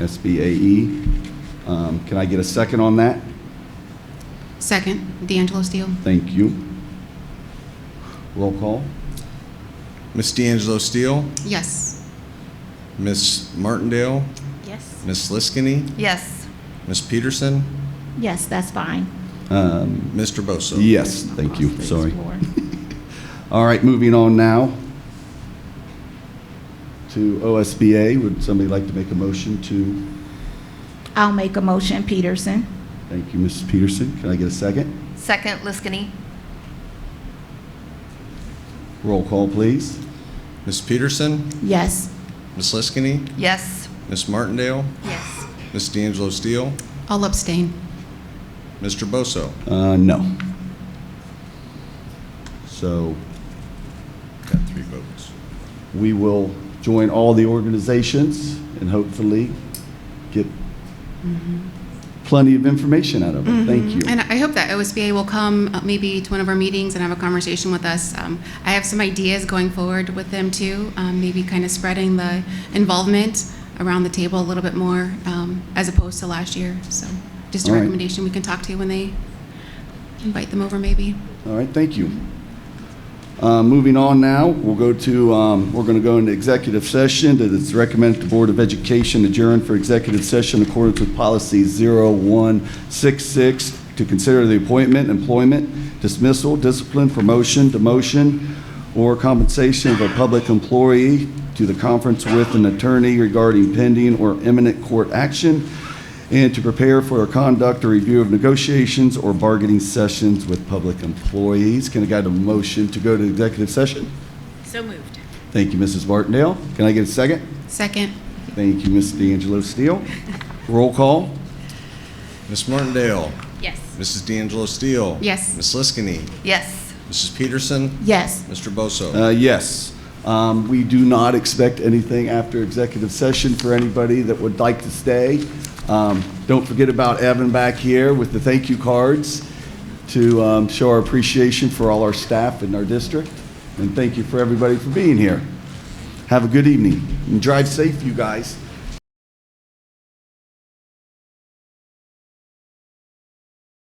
SBAE. E. Um, Can I get a second on that? Second, D'Angelo Steele. Thank you. Roll call? Miss D'Angelo Steele, Yes. Miss Martindale, Yes. Miss Liskini, Yes. Miss Peterson, Yes, that's fine. Um, Mr. Bosso. Yes, thank you, Across the sorry. floor. All right, moving on now to OSBA. Would somebody like to make a motion to, I'll make a motion, Peterson. thank you, Mrs. Peterson. Can I get a second? Second, Liskini. Roll call, please. Miss Peterson, Yes. Miss Liskini, Yes. Miss Martindale, Yes. Miss D'Angelo Steele, I'll abstain. Mr. Bosso. Uh, No. So Got three votes. we will join all the organizations and hopefully get plenty of information out of them. Thank you. And I hope that OSBA will come uh, maybe to one of our meetings and have a conversation with us. Um, I have some ideas going forward with them too, um, maybe kind of spreading the involvement around the table a little bit more um, as opposed to last year. So just a All right. recommendation we can talk to when they invite them over maybe. All right, thank you. Uh, Moving on now, we'll go to, um, we're going to go into executive session. That It's recommended the Board of Education adjourn for executive session in accordance with Policy 0166 to consider the appointment, employment, dismissal, discipline, promotion, demotion, or compensation of a public employee to the conference with an attorney regarding pending or imminent court action, and to prepare for or conduct a review of negotiations or bargaining sessions with public employees. Can I get a motion to go to executive session? So moved. Thank you, Mrs. Martindale. Can I get a second? Second, Thank you, Ms. D'Angelo Steele. Roll call? Miss Martindale, Yes. Mrs. D'Angelo Steele. Yes. Miss Liskini, Yes. Mrs. Peterson, Yes. Mr. Bosso. Uh, Yes. Um, We do not expect anything after executive session for anybody that would like to stay. Um, Don't forget about Evan back here with the thank you cards to um, show our appreciation for all our staff in our district, and thank you for everybody for being here. Have a good evening, and drive safe, you guys.